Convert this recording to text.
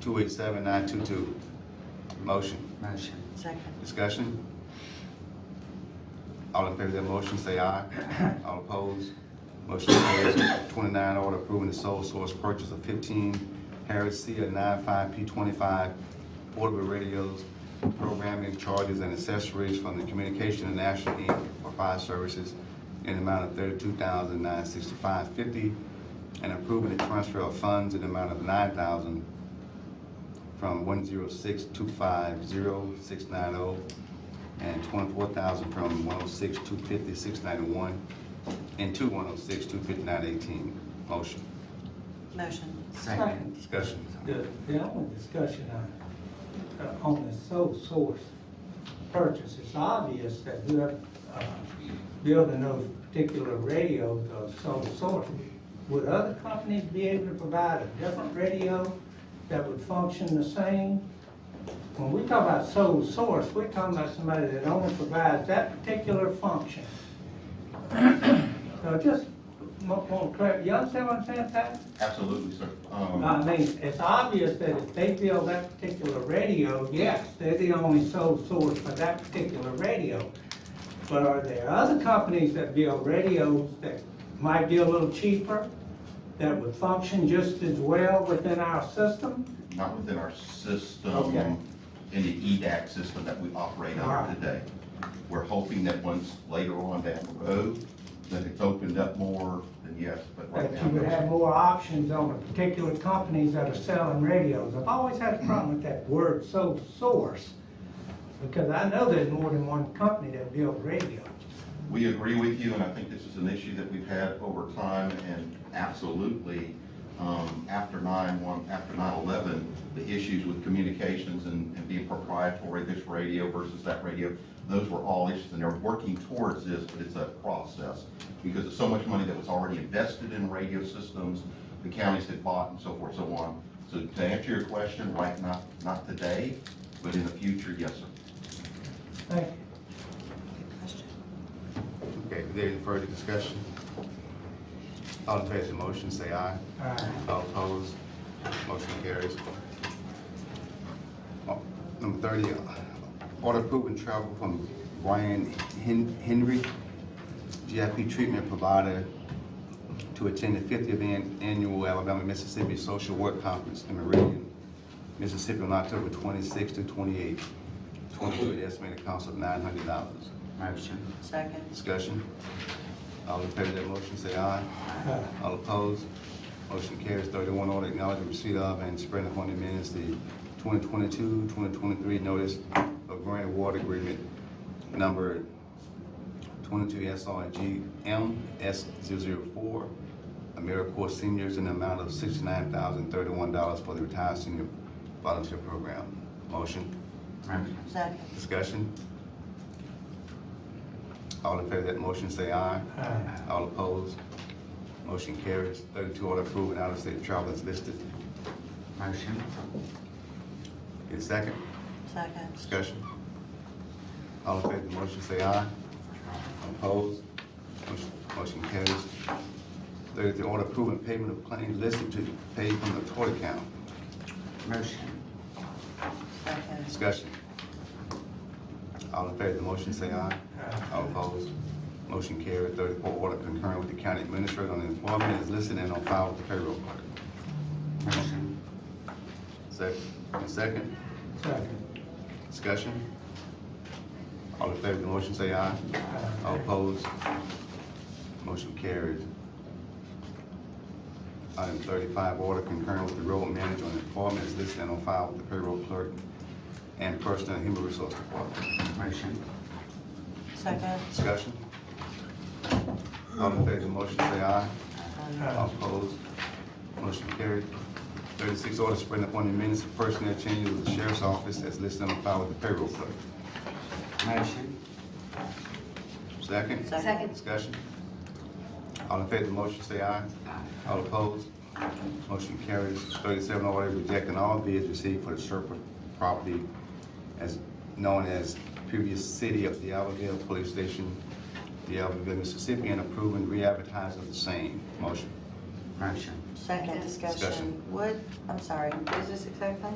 two eight seven nine two two. Motion, Motion. Second. discussion? All in favor of that motion, say aye. All opposed? Motion carries. Twenty-nine, order approving the sole source purchase of fifteen Harris C A nine-five P twenty-five portable radios, programming charges and accessories from the Communication and National Inc. for fire services in the amount of thirty-two thousand nine sixty-five fifty, and approving the transfer of funds in the amount of nine thousand from one zero six two five zero six nine oh and twenty-four thousand from one oh six two fifty six ninety-one and two one oh six two fifty-nine eighteen. Motion. Motion. Second. Discussion. The, the only discussion on, uh, on the sole source purchase, it's obvious that whoever, uh, building those particular radios are sole source. Would other companies be able to provide a different radio that would function the same? When we talk about sole source, we're talking about somebody that only provides that particular function. So just, mo- more clear, you understand what I'm saying, Pat? Absolutely, sir. Um, I mean, it's obvious that if they build that particular radio, yes, they're the only sole source for that particular radio. But are there other companies that build radios that might be a little cheaper, that would function just as well within our system? Not within our system, Okay. Ah. in the E EDAC system that we operate All right. under today. We're hoping that once later on down the road, that it's opened up more, then yes, but right That now. you would no, sir. have more options on the particular companies that are selling radios. I've always had a problem with that word sole source, because I know there's more than one company that builds radios. We agree with you, and I think this is an issue that we've had over time, and absolutely, um, after nine one, after nine eleven, the issues with communications and, and being proprietary, this radio versus that radio, those were all issues, and they're working towards this, but it's a process. Because there's so much money that was already invested in radio systems, the counties had bought and so forth, so on. So to answer your question, right, not, not today, but in the future, yes, sir. Thank you. Good question. Okay, is there any further discussion? All in favor of the motion, say aye. All right. All opposed? Motion carries. Oh, Number thirty, uh, order approving travel from Brian Hen- Henry, GIP treatment provider to attend the fiftieth annual Alabama Mississippi Social Work Conference in Meridian, Mississippi on October twenty-sixth to twenty-eighth. Twenty-two, estimated cost of nine hundred dollars. Motion. Second. Discussion? All in favor of that motion, say aye. All opposed? Motion carries. Thirty-one, order acknowledging receipt of and spreading upon the minutes the 2022-2023 notice of grant award agreement number twenty-two SRG MS 4 AmeriCorps seniors in the amount of sixty-nine thousand thirty-one dollars for the retired senior volunteer program. Motion? Motion. Second. Discussion? All in favor of that motion, say aye. Aye. All opposed? Motion carries. Thirty-two, order approving out-of-state travel is listed. Motion. Get a second? Second. Discussion? All in favor of the motion, say aye. Opposed? Motion- Motion carries. Thirty-three, order approving payment of claims listed to be paid from the tort account. Motion. Second. Discussion? All in favor of the motion, say aye. All opposed? Motion carried. Thirty-four, order concurring with the county administrator on employment is listed and on file with the payroll clerk. Motion. Second, and second, Second. discussion? All in favor of the motion, say aye. All opposed? Motion carries. Item thirty-five, order concurring with the road manager on employment is listed and on file with the payroll clerk and personnel and human resource department. Motion. Second. Discussion? All in favor of the motion, say aye. Um, Aye. All opposed? Motion carried. Thirty-six, order spreading upon the minutes of personnel changes with the sheriff's office as listed on file with the payroll clerk. Motion. Second? Second. Discussion? All in favor of the motion, say aye. All opposed? Motion carries. Thirty-seven, order rejecting all bids received for the surplus property as known as previous city of Diabloville Police Station, Diabloville, Mississippi, and approving re-advertising of the same. Motion. Motion. Second discussion. Discussion. What, I'm sorry, what is this exactly?